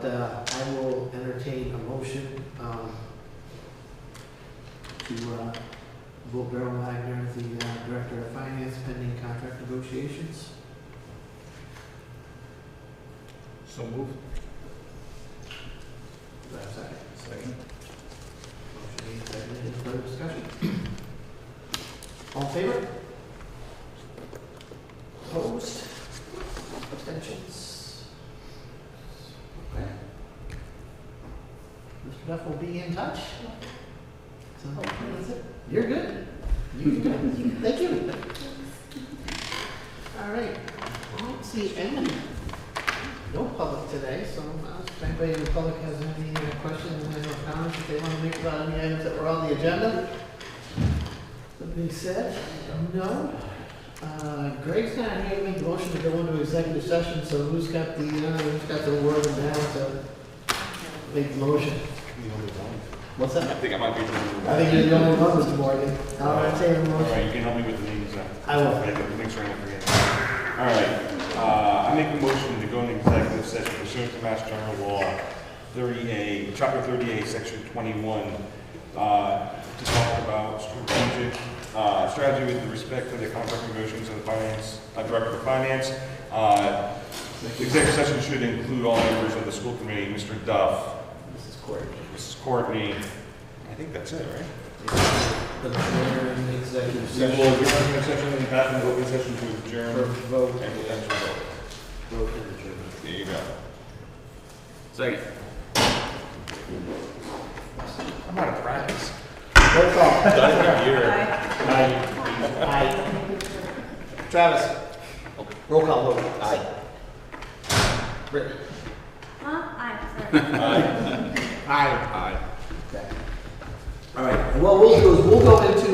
Uh, I will entertain a motion um, to uh, vote Beryl Wagner as the uh, Director of Finance pending contract negotiations. So moved. Do I have a second? Second. Motion made, seconded, any further discussion? All in favor? Opposed? Abstentions? Okay. Mr. Duff will be in touch. So, that's it. You're good. You can do it. Thank you. All right, I don't see any, no public today, so I'll ask if anybody in the public has any uh, questions, any comments that they want to make about any items that were on the agenda. That being said, no. Uh, Greg's not here to make the motion to go into executive session, so who's got the, uh, who's got the word now to make the motion? What's I that? think I might be. the only I one. think you're the only one, Mr. Morgan. I'll entertain a All motion. right, you can help me with the names then. I will. Okay, but Make sure I don't forget. All right, uh, I make a motion to go into executive session pursuant to Mass General Law thirty-eight, chapter thirty-eight, section twenty-one, uh, to talk about strategic, uh, strategy with respect to the contract negotiations of the finance, uh, director of finance. Uh, the executive session should include all members of the school committee, Mr. Duff, Mrs. Court. Mrs. Courtney. I think that's it, right? The mayor in executive We session will return to session and pass an open session to for adjourn vote. and potential vote. Vote in the jury. There you go. Second. I'm out of practice. Roll call. Aye. Aye. Travis. Roll call vote. Aye. Brittany. Huh? Aye, sorry. Aye. Aye. Aye. All right, and what we'll do is we'll go into